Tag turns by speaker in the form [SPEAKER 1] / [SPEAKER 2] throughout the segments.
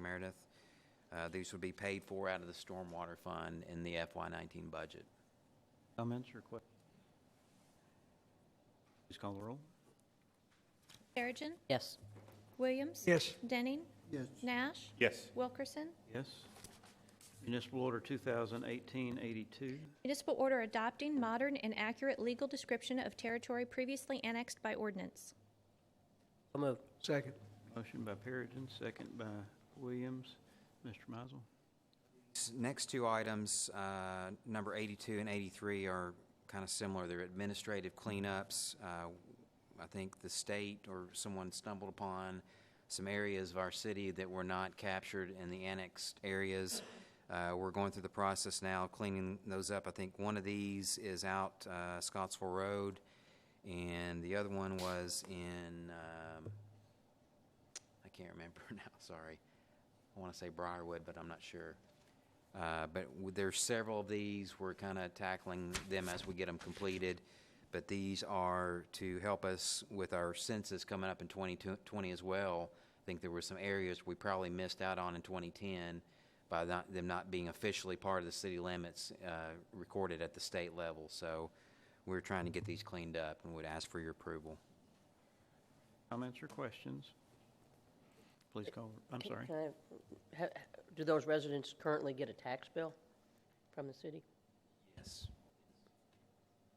[SPEAKER 1] Meredith. Uh, These would be paid for out of the stormwater fund in the FY19 budget.
[SPEAKER 2] Comments or questions? Please call the roll.
[SPEAKER 3] Perigin.
[SPEAKER 4] yes,
[SPEAKER 3] Williams.
[SPEAKER 5] Yes.
[SPEAKER 3] Denning.
[SPEAKER 5] Yes.
[SPEAKER 3] Nash.
[SPEAKER 6] Yes.
[SPEAKER 3] Wilkerson.
[SPEAKER 2] Yes. Municipal Order 2018-82.
[SPEAKER 3] Municipal order adopting modern and accurate legal description of territory previously annexed by ordinance.
[SPEAKER 4] so moved,
[SPEAKER 5] Second.
[SPEAKER 2] Motion by Perigin, second by Williams. Mr. Mizel.
[SPEAKER 1] S- Next two items, uh, number 82 and 83, are kind of similar. They're administrative cleanups. Uh, I think the state or someone stumbled upon some areas of our city that were not captured in the annexed areas. Uh, We're going through the process now, cleaning those up. I think one of these is out uh, Scottsville Road, and the other one was in, um, I can't remember now, sorry. I want to say Briarwood, but I'm not sure. Uh, But w- there's several of these, we're kind of tackling them as we get them completed. But these are to help us with our census coming up in 2020 as well. I think there were some areas we probably missed out on in 2010 by not- them not being officially part of the city limits uh, recorded at the state level. So we're trying to get these cleaned up and would ask for your approval.
[SPEAKER 2] Comments or questions? Please call, I'm
[SPEAKER 4] Can-
[SPEAKER 2] sorry.
[SPEAKER 4] can I- ha- Do those residents currently get a tax bill from the city?
[SPEAKER 1] Yes.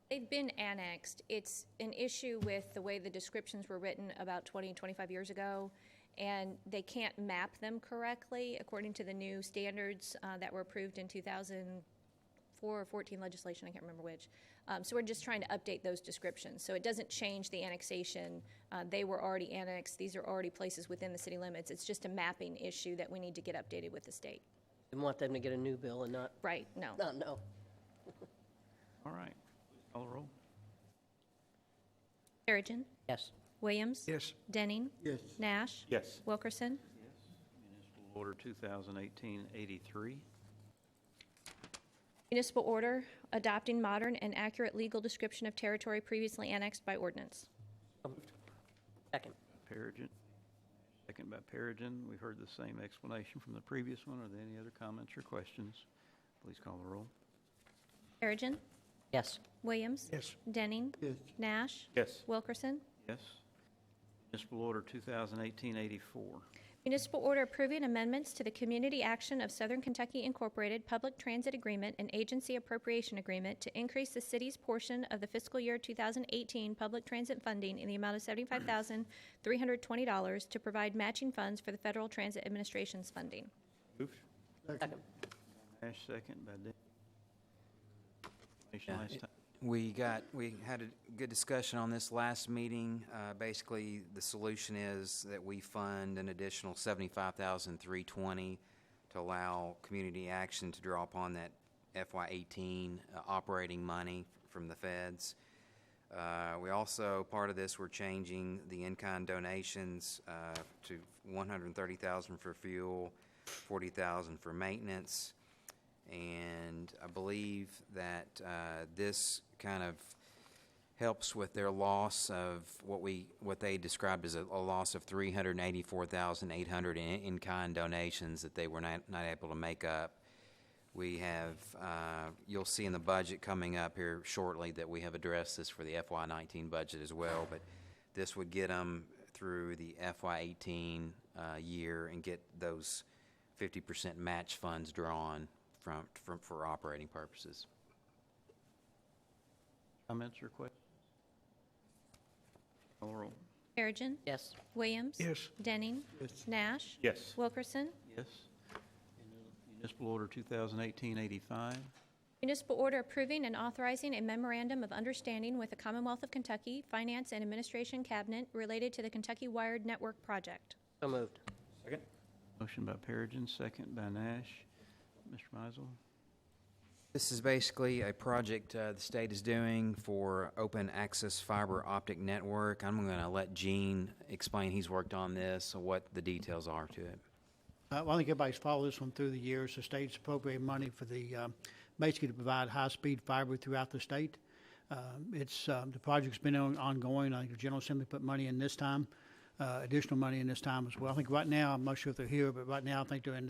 [SPEAKER 3] They've been annexed. It's an issue with the way the descriptions were written about 20, 25 years ago, and they can't map them correctly according to the new standards uh, that were approved in 2004 or 14 legislation, I can't remember which. Um, So we're just trying to update those descriptions. So it doesn't change the annexation. Uh, They were already annexed. These are already places within the city limits. It's just a mapping issue that we need to get updated with the state.
[SPEAKER 4] We want them to get a new bill and not,
[SPEAKER 3] Right, no.
[SPEAKER 5] Uh,
[SPEAKER 4] not know.
[SPEAKER 2] All right. Call the roll.
[SPEAKER 3] Perigin.
[SPEAKER 4] Yes,
[SPEAKER 3] Williams.
[SPEAKER 5] Yes.
[SPEAKER 3] Denning.
[SPEAKER 5] Yes.
[SPEAKER 3] Nash.
[SPEAKER 6] Yes.
[SPEAKER 3] Wilkerson.
[SPEAKER 2] Municipal Order 2018-83.
[SPEAKER 3] Municipal order adopting modern and accurate legal description of territory previously annexed by ordinance.
[SPEAKER 4] second,
[SPEAKER 2] Perigin. Second by Perigin. We've heard the same explanation from the previous one. Are there any other comments or questions? Please call the roll.
[SPEAKER 3] Perigin.
[SPEAKER 4] yes,
[SPEAKER 3] Williams.
[SPEAKER 5] Yes.
[SPEAKER 3] Denning.
[SPEAKER 5] Yes.
[SPEAKER 3] Nash.
[SPEAKER 6] Yes.
[SPEAKER 3] Wilkerson.
[SPEAKER 2] Yes. Municipal Order 2018-84.
[SPEAKER 3] Municipal order approving amendments to the Community Action of Southern Kentucky Incorporated Public Transit Agreement and Agency Appropriation Agreement to increase the city's portion of the fiscal year 2018 public transit funding in the amount of $75,320 to provide matching funds for the Federal Transit Administration's funding.
[SPEAKER 6] Moved.
[SPEAKER 4] second,
[SPEAKER 2] Ash, second by Denning. Explanation
[SPEAKER 1] Yeah,
[SPEAKER 2] last
[SPEAKER 1] it-
[SPEAKER 2] time.
[SPEAKER 1] We got, we had a good discussion on this last meeting. Uh, Basically, the solution is that we fund an additional seventy-five thousand three twenty to allow community action to draw upon that FY eighteen uh, operating money from the feds. Uh, We also, part of this, we're changing the in-kind donations uh, to one hundred and thirty thousand for fuel, forty thousand for maintenance. And I believe that uh, this kind of helps with their loss of what we, what they described as a a loss of 384,800 in- in-kind donations that they were not, not able to make up. We have, uh, you'll see in the budget coming up here shortly that we have addressed this for the FY19 budget as well, but this would get them through the FY18 uh, year and get those 50% match funds drawn from, from, for operating purposes.
[SPEAKER 2] Comments or questions? Call the roll.
[SPEAKER 3] Perigin.
[SPEAKER 4] yes,
[SPEAKER 3] Williams.
[SPEAKER 5] Yes.
[SPEAKER 3] Denning. Nash.
[SPEAKER 6] Yes.
[SPEAKER 3] Wilkerson.
[SPEAKER 2] Yes. Municipal Order 2018-85.
[SPEAKER 3] Municipal order approving and authorizing a memorandum of understanding with the Commonwealth of Kentucky Finance and Administration Cabinet related to the Kentucky Wired Network Project.
[SPEAKER 4] so moved,
[SPEAKER 6] Second.
[SPEAKER 2] Motion by Perigin, second by Nash. Mr. Mizel.
[SPEAKER 1] This is basically a project uh, the state is doing for open access fiber optic network. I'm going to let Gene explain, he's worked on this, what the details are to it.
[SPEAKER 7] Uh, well, I think everybody's followed this one through the years. The state's appropriated money for the, um, basically to provide high-speed fiber throughout the state. Uh, Um, It's, um, the project's been on- ongoing. I think the General Assembly put money in this time. uh, additional money in this time as well. I think right now, I'm not sure if they're here, but right now, I think they're in the